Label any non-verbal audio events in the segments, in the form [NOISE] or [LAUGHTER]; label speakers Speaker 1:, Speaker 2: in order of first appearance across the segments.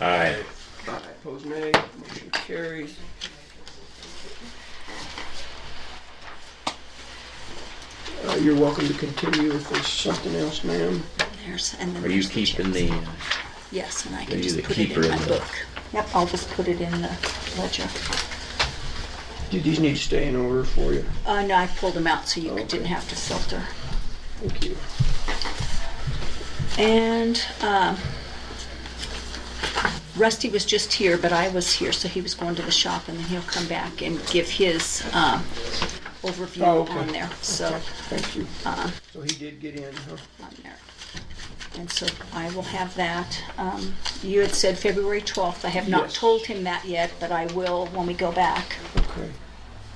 Speaker 1: Aye.
Speaker 2: Aye, opposed nay, motion carries. Uh, You're welcome to continue if there's something else, ma'am.
Speaker 3: There's, and
Speaker 1: Are
Speaker 3: then,
Speaker 1: you keeping the, uh,
Speaker 3: yes, and I
Speaker 1: Are
Speaker 3: can
Speaker 1: you
Speaker 3: just
Speaker 1: the
Speaker 3: put it
Speaker 1: keeper
Speaker 3: in
Speaker 1: of
Speaker 3: my
Speaker 1: the-
Speaker 3: book. Yep, I'll just put it in the ledger.
Speaker 2: Do these need to stay in order for you?
Speaker 3: Uh, no, I pulled them out so
Speaker 1: Oh,
Speaker 3: you
Speaker 2: Okay.
Speaker 3: didn't have to filter.
Speaker 2: Thank you.
Speaker 3: And um, Rusty was just here, but I was here, so he was going to the shop, and then he'll come back and give his um,
Speaker 2: Oh,
Speaker 3: overview
Speaker 2: okay.
Speaker 3: on there, so,
Speaker 2: Thank you. So he did get in, huh?
Speaker 3: on there. And so I will have that. Um, You had said February 12th. I have not
Speaker 2: Yes.
Speaker 3: told him that yet, but I will when we go back.
Speaker 2: Okay.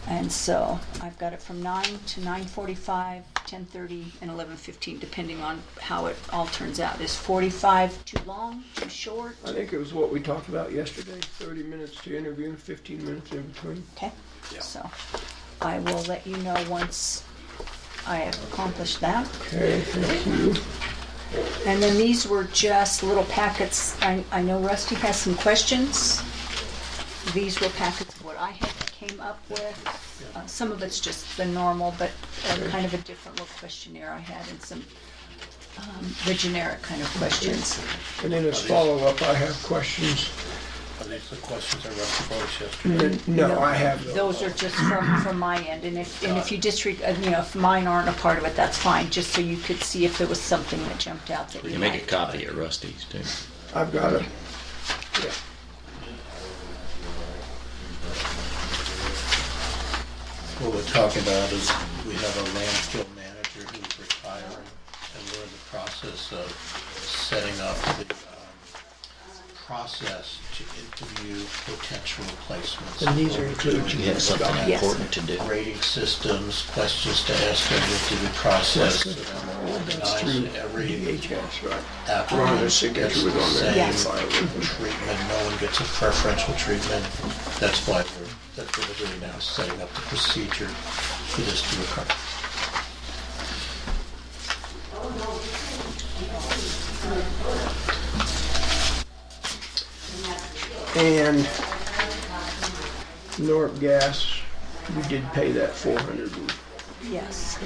Speaker 3: And so I've got it from nine to nine forty-five, ten thirty, and eleven fifteen, depending on how it all turns out. Is forty-five too long, too short?
Speaker 2: I think it was what we talked about yesterday, 30 minutes to interview and 15 minutes in between.
Speaker 3: Okay, so I will let you know once I have accomplished that.
Speaker 2: Okay, thank you.
Speaker 3: And then these were just little packets. I, I know Rusty has some questions. These were packets of what I had came up with. Uh, some of it's just the normal, but uh, kind of a different little questionnaire I had and some, um, the generic kind of questions.
Speaker 2: And then as follow-up, I have questions.
Speaker 4: Are these the questions I read before us yesterday?
Speaker 2: And No, I have those.
Speaker 3: Those are just from, from my end, and if, and if you disregard, uh, you know, if mine aren't a part of it, that's fine, just so you could see if there was something that jumped out that
Speaker 1: you
Speaker 3: you
Speaker 1: can make a
Speaker 3: liked.
Speaker 1: copy of Rusty's too.
Speaker 2: I've got it. Yeah.
Speaker 4: What we're talking about is we have a landfill manager who's retiring, and we're in the process of setting up the um, process to interview potential replacements.
Speaker 2: And these are
Speaker 1: You have something
Speaker 3: Yes.
Speaker 1: important to do.
Speaker 4: Rating systems, questions to ask them through the process, so then we'll
Speaker 2: That's through
Speaker 4: organize every
Speaker 2: DHS, right? Ron,
Speaker 4: applicant
Speaker 2: their
Speaker 4: gets the
Speaker 2: signature was on there.
Speaker 3: Yes.
Speaker 4: same
Speaker 2: [LAUGHS]
Speaker 4: treatment, no one gets a preferential treatment. That's why we're, that's what we're doing now, setting up the procedure for this to occur.
Speaker 2: And North Gas, we did pay that four hundred.
Speaker 3: Yes.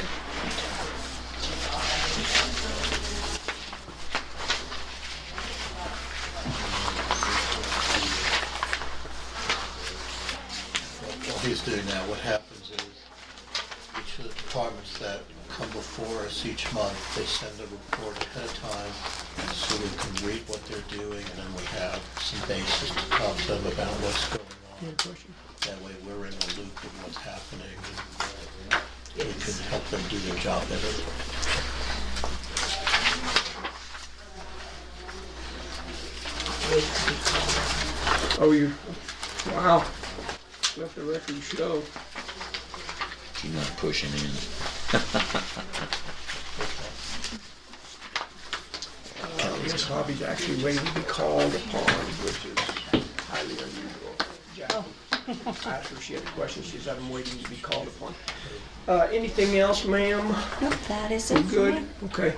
Speaker 4: What he's doing now, what happens is, each of the departments that come before us each month, they send a report ahead of time, so we can read what they're doing, and then we have some basis to talk to them about what's going on. That way, we're in the loop of what's happening, and uh, we can help them do their job better.
Speaker 2: Oh, you, wow. Let the record show.
Speaker 1: You're not pushing in.
Speaker 2: Uh, This hobby's actually waiting to be called upon, which is highly unusual. Jackie, After she had a question, she said, I'm waiting to be called upon. Uh, anything else, ma'am?
Speaker 3: Nope, that is it. for
Speaker 2: Good,
Speaker 3: me.
Speaker 2: okay.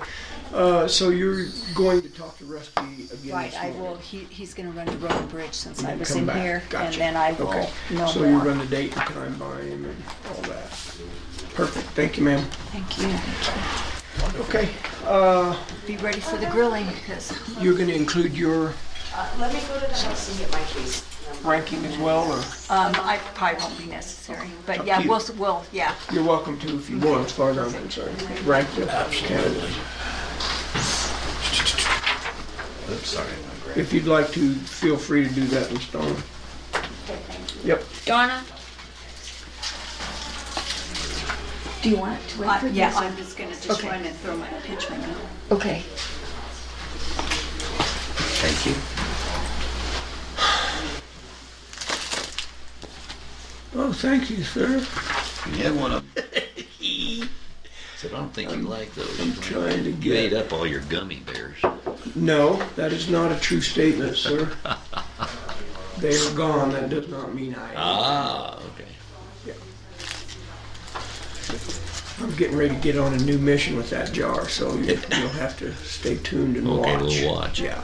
Speaker 2: Uh, so you're going to talk to Rusty again this
Speaker 3: Right, I
Speaker 2: morning?
Speaker 3: will, he, he's gonna run the road and bridge since I
Speaker 2: And
Speaker 3: was
Speaker 2: come
Speaker 3: in
Speaker 2: back.
Speaker 3: here, and
Speaker 2: Gotcha.
Speaker 3: then I will
Speaker 2: Okay.
Speaker 3: know
Speaker 2: So you run the
Speaker 3: more.
Speaker 2: date and time by him and all that. Perfect, thank you, ma'am.
Speaker 3: Thank you.
Speaker 2: Okay, uh,
Speaker 3: Be ready for the grilling, because
Speaker 2: you're gonna include your
Speaker 5: Uh, Let me go to the house and get my keys.
Speaker 2: ranking as well, or
Speaker 3: Um, I probably won't be necessary, but
Speaker 2: Up
Speaker 3: yeah,
Speaker 2: to you.
Speaker 3: we'll, s- we'll, yeah.
Speaker 2: you're welcome to if you want, as far as I'm concerned. Rank the candidates.
Speaker 1: Oops, sorry. my grab-
Speaker 2: If you'd like to, feel free to do that in stone. Yep,
Speaker 6: Donna?
Speaker 3: Do you want it to wait
Speaker 6: for
Speaker 3: Yeah,
Speaker 6: this?
Speaker 3: I'm just gonna just
Speaker 6: Okay.
Speaker 3: run and throw my pitch right now.
Speaker 6: Okay.
Speaker 1: Thank you.
Speaker 2: oh, thank you, sir.
Speaker 1: You had [LAUGHS] one of them. Said, I don't think you like those.
Speaker 2: I'm trying to
Speaker 1: You ate
Speaker 2: get,
Speaker 1: up all your gummy bears.
Speaker 2: no, that is not a true statement, sir. They are gone, that does not mean I,
Speaker 1: Ah, okay.
Speaker 2: I'm getting ready
Speaker 1: [LAUGHS]
Speaker 2: to get on a new mission with that jar, so you- you'll have to stay tuned and
Speaker 1: Okay,
Speaker 2: watch.
Speaker 1: we'll watch.
Speaker 2: Yeah.